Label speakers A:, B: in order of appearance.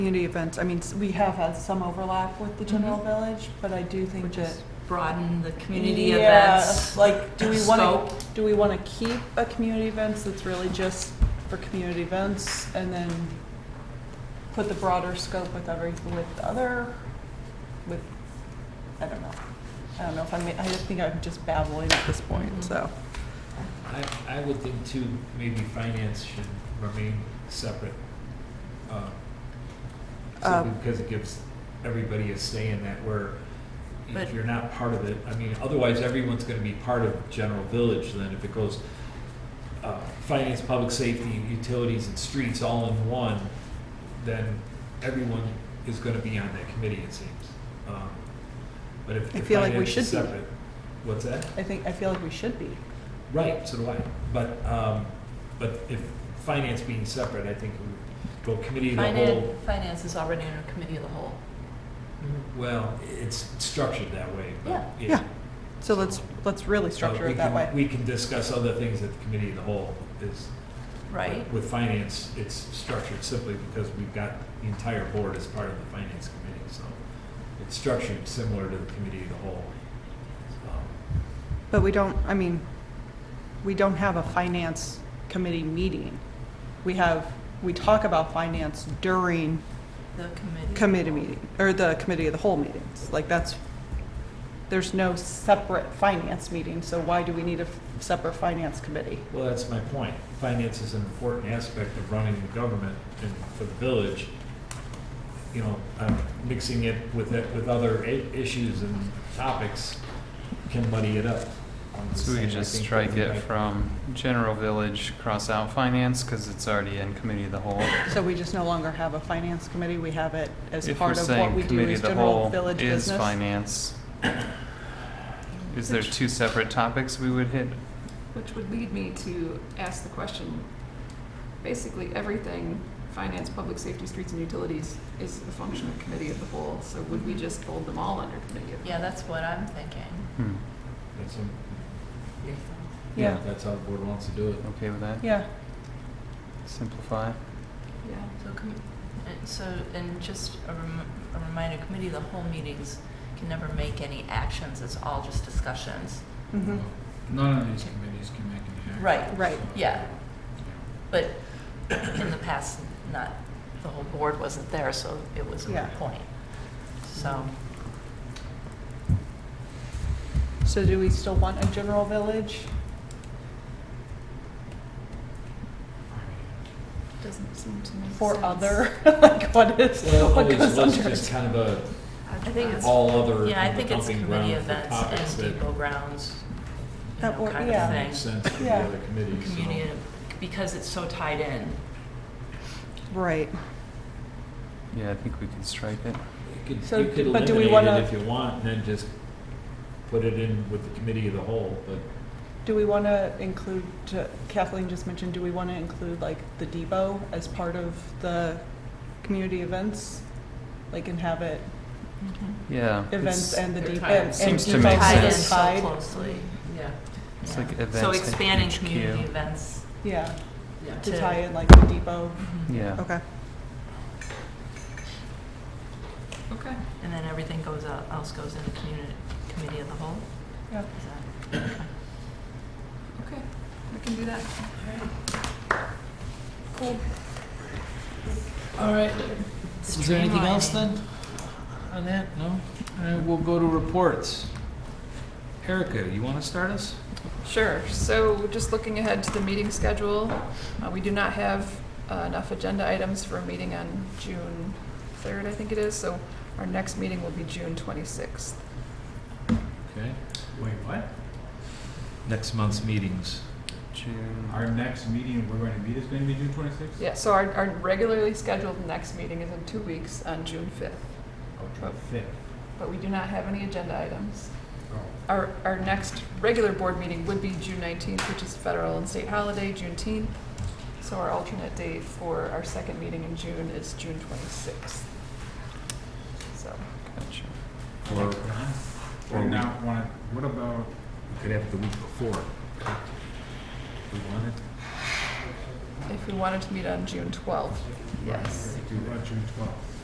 A: Community events, I mean, s- we have had some overlap with the general village, but I do think that.
B: Just broaden the community
A: Yeah,
B: events.
A: Like, do we want
B: scope.
A: to, do we want to keep a community events that's really just for community events and then put the broader scope with every, with other, with, I don't know. I don't know if I'm, I just think I'm just babbling at this point, so.
C: I, I would think too, maybe finance should remain separate. uh,
A: Uh,
C: So, because it gives everybody a say in that where
B: But-
C: if you're not part of it, I mean, otherwise everyone's gonna be part of general village then if it goes uh, finance, public safety, utilities and streets all in one, then everyone is gonna be on that committee, it seems. Um, But if
A: I
C: if
A: feel like we
C: finance is
A: should be.
C: separate, what's that?
A: I think, I feel like we should be.
C: Right, so do I. But, um, but if finance being separate, I think, we- well, committee of the
B: Finance,
C: whole,
B: finance is already under committee of the whole.
C: well, it's structured that way. but
B: Yeah.
C: it-
A: Yeah, So let's, let's really structure
C: but we
A: it that
C: can-
A: way.
C: We can discuss other things at the committee of the whole is.
B: Right.
C: With finance, it's structured simply because we've got the entire board as part of the finance committee, so it's structured similar to the committee of the whole. Um,
A: But we don't, I mean, we don't have a finance committee meeting. We have, we talk about finance during
B: The committee.
A: committee meeting, or the committee of the whole meetings. Like, that's, there's no separate finance meeting, so why do we need a f- separate finance committee?
C: Well, that's my point. Finance is an important aspect of running the government and for the village. You know, um, mixing it with, it- with other i- issues and topics can muddy it up. I'm
D: So we
C: saying,
D: could
C: I
D: just
C: think
D: strike
C: that we
D: it
C: might-
D: from general village, cross out finance, because it's already in committee of the whole.
A: So we just no longer have a finance committee, we have it as
D: If we're
A: part of what we
D: saying
A: do
D: committee
A: as
D: of the
A: general
D: whole
A: village
D: is
A: business.
D: finance, is there two separate topics we would hit?
E: Which would lead me to ask the question, basically everything, finance, public safety, streets and utilities is a function of committee of the whole, so would we just fold them all under committee of the
B: Yeah,
E: whole?
B: that's what I'm thinking.
D: Hmm,
C: That's a-
A: Yeah,
C: That's how the board wants to do it.
D: okay with that?
A: yeah,
D: Simplify?
E: Yeah.
B: So, com- and so, and just a rem- a reminder, committee of the whole meetings can never make any actions, it's all just discussions.
A: mhm,
F: None of these committees can make an action.
B: Mm-hmm. Right,
A: right,
B: yeah. But in the past, not, the whole board wasn't there, so it was a
A: Yeah.
B: moot point. So,
A: so do we still want a general village?
E: Doesn't seem to make
A: For
E: sense.
A: other, like what is,
C: Well,
A: what
C: it
A: goes
C: always was
A: under
C: just
A: it?
C: kind of a
B: I think it's,
C: all other
B: yeah, I think it's
C: dumping
B: committee
C: ground for
B: events
C: topics
B: and depot
C: that
B: grounds, you
A: That
B: know,
A: wor-
B: kind
A: yeah.
C: make
B: of thing.
C: sense for the
A: Yeah.
C: other committees. so-
B: Community, because it's so tied in.
A: Right,
D: Yeah, I think we could strike it.
C: You could,
A: So
C: you could
A: d- but do we
C: eliminate
A: wanna-
C: it if you want, and then just put it in with the committee of the whole, but
A: do we want to include, Kathleen just mentioned, do we want to include like the depot as part of the community events? Like and have it
D: Yeah.
A: events
D: it's-
A: and the
B: They're
A: depot.
B: tied.
A: and
D: Seems to
A: depot
D: make
B: Tied in
D: sense.
B: so
A: tied.
B: closely, yeah.
D: It's
B: Yeah.
D: like events
B: So
D: at
B: expanding
D: HQ.
B: community events
A: Yeah, to
B: to.
A: tie in like the depot,
B: Mhm.
D: Yeah,
A: okay.
E: Okay.
B: And then everything goes out, else goes in the community, committee of the whole?
A: Yeah.
B: Is that-
E: Okay, we can do that. Cool.
F: All right, is there anything else then on that? No? All right, we'll go to reports. Erica, you want to start us?
E: Sure, so just looking ahead to the meeting schedule, uh, we do not have uh, enough agenda items for a meeting on June 3rd, I think it is, so our next meeting will be June 26th.
C: Okay. Wait, what? Next month's meetings.
D: June,
F: Our next meeting, we're going to meet, is going to be June twenty-sixth?
E: Yeah, so our, our regularly scheduled next meeting is in two weeks on June 5th,
C: Oh,
F: June fifth.
E: but we do not have any agenda items.
C: Oh.
E: Our, our next regular board meeting would be June 19th, which is federal and state holiday, Juneteenth. So our alternate date for our second meeting in June is June 26th. So,
D: gotcha.
C: Or, or
F: Or
C: we
F: now, wanna- what about,
C: we could have it the week before. We want it?
E: if we wanted to meet on June twelfth, yes.
C: Do it on June twelfth.